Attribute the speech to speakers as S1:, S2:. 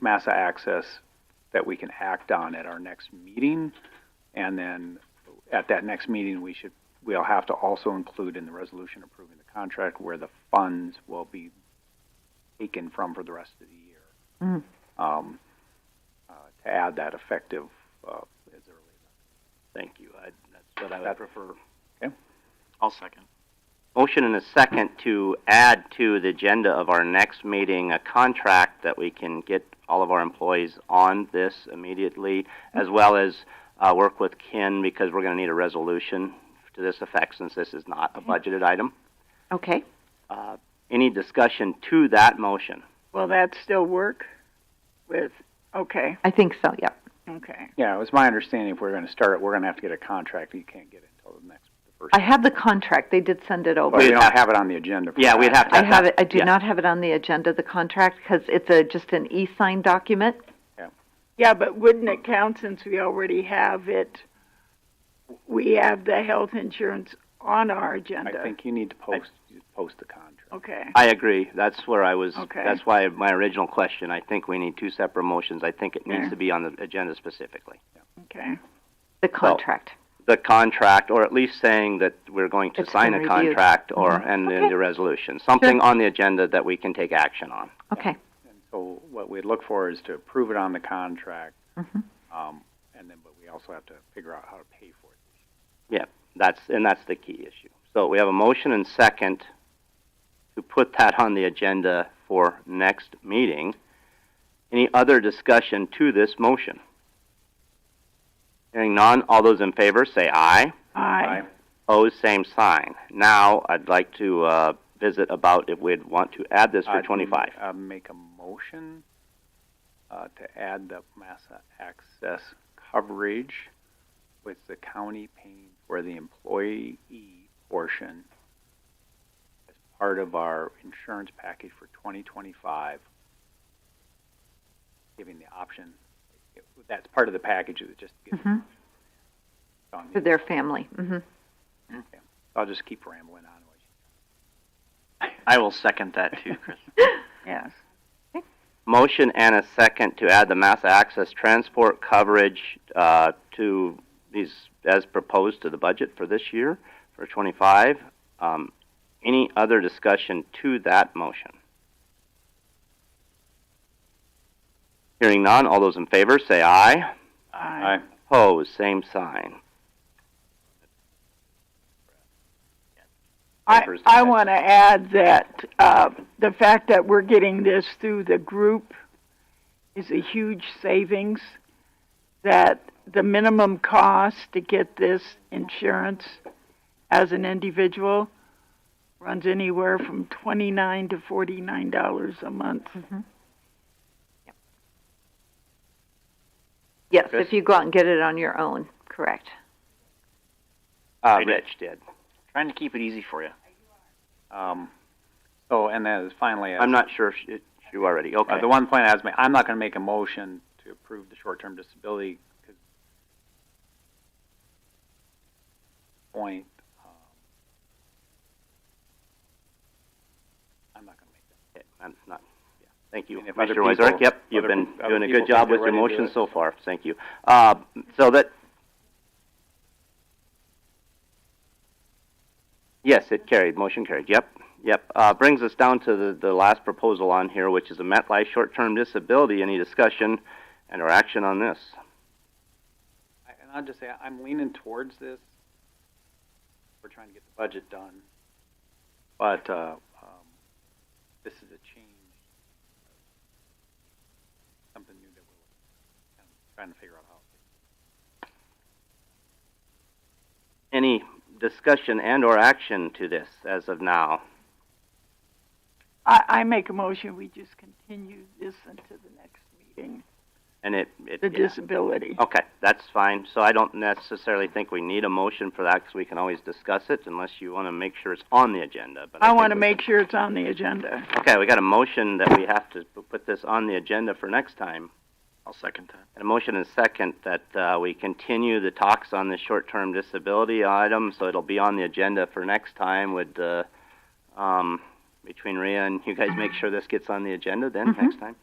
S1: Massa Access that we can act on at our next meeting. And then at that next meeting, we should, we'll have to also include in the resolution approving the contract where the funds will be taken from for the rest of the year.
S2: Mm.
S1: Um, uh, to add that effective, uh, as early
S3: Thank you. I, that's what I
S1: That-
S3: would prefer.
S4: I'll second.
S3: Motion and a second to add to the agenda of our next meeting a contract that we can get all of our employees on this immediately, as well as, uh, work with Ken because we're gonna need a resolution to this effect since this is not a budgeted item.
S2: Okay.
S3: Uh, any discussion to that motion?
S5: Will that still work with, okay,
S2: I think so, yeah.
S5: okay.
S1: Yeah, it was my understanding if we're gonna start it, we're gonna have to get a contract, you can't get it until the next, the first.
S2: I have the contract. They did send it
S1: But
S2: over.
S1: we
S3: We'd
S1: don't
S3: have-
S1: have it on the agenda for
S3: Yeah, we'd
S1: that.
S3: have to.
S2: I have it, I do
S3: yeah.
S2: not have it on the agenda, the contract, because it's a, just an e-signed document.
S5: Yeah, but wouldn't it count since we already have it? We have the health insurance on our agenda.
S1: I think you need to post, post the contract.
S5: Okay,
S3: I agree. That's where I was,
S5: Okay.
S3: that's why my original question, I think we need two separate motions. I think it needs
S5: Yeah.
S3: to be on the agenda specifically.
S5: okay.
S2: The contract.
S3: The contract, or at least saying that we're going to
S2: It's
S3: sign
S2: been
S3: a
S2: reviewed.
S3: contract or,
S2: Mhm.
S3: and then
S2: Okay.
S3: the resolution. Something on the agenda that we can take action on.
S2: Okay.
S1: And so what we'd look for is to approve it on the contract,
S2: Mhm.
S1: um, and then, but we also have to figure out how to pay for it.
S3: That's, and that's the key issue. So we have a motion and second to put that on the agenda for next meeting. Any other discussion to this motion? Hearing none, all those in favor say aye.
S5: I,
S3: Opposed, same sign. Now, I'd like to, uh, visit about if we'd want to add this for
S1: I'd
S3: twenty-five.
S1: m- Uh, make a motion, uh, to add the Massa access coverage with the county paying for the employee portion as part of our insurance package for twenty twenty-five, giving the option, it- that's part of the package, it just gives
S2: Mhm.
S1: on the-
S2: For their family. hmm
S1: I'll just keep rambling on.
S4: I will second that too, Chris.
S5: yes.
S3: Motion and a second to add the mass access transport coverage, uh, to these, as proposed to the budget for this year, for twenty-five. Um, any other discussion to that motion? Hearing none, all those in favor say aye.
S5: I,
S3: Opposed, same sign.
S5: I, I want to add that, uh, the fact that we're getting this through the group is a huge savings. That the minimum cost to get this insurance as an individual runs anywhere from twenty-nine to forty-nine dollars a month.
S2: Yes,
S3: Chris?
S2: if you go out and get it on your own, correct.
S3: Uh,
S4: I did.
S3: Rich did.
S4: Trying to keep it easy for you.
S1: Um, so, and then finally,
S3: I'm not sure if she, she already, okay.
S1: Uh, the one point I was ma- I'm not gonna make a motion to approve the short-term disability, 'cause point, um, I'm not gonna make that.
S3: Okay, I'm not, yeah. Thank you,
S1: And if other
S3: Commissioner Wazorek.
S1: people-
S3: Yep, you've
S1: other
S3: been
S1: peop- other
S3: doing a
S1: people
S3: good
S1: think
S3: job
S1: they're
S3: with your
S1: ready to do
S3: motion
S1: it.
S3: so far. Thank you. Uh, so that. Yes, it carried, motion carried, yep, yep. Uh, brings us down to the, the last proposal on here, which is a MetLife short-term disability. Any discussion and or action on this?
S1: I- And I'll just say, I'm leaning towards this, we're trying to get the budget done, but, uh, um, this is a change, something new that we're, kind of trying to figure out how.
S3: Any discussion and or action to this as of now?
S5: I, I make a motion, we just continue this until the next meeting,
S3: And it, it,
S5: the
S3: yeah. Oh,
S5: disability.
S3: Okay, that's fine. So I don't necessarily think we need a motion for that because we can always discuss it unless you want to make sure it's on the agenda. But I,
S5: I
S3: think
S5: want to
S3: we-
S5: make sure it's on the agenda.
S3: Okay, we got a motion that we have to p- put this on the agenda for next time.
S4: I'll second that.
S3: And a motion and a second that uh, we continue the talks on the short-term disability item, so it'll be on the agenda for next time. Would uh, um, between Rhea and you guys make sure this gets on the agenda then
S2: Mhm.
S3: next time?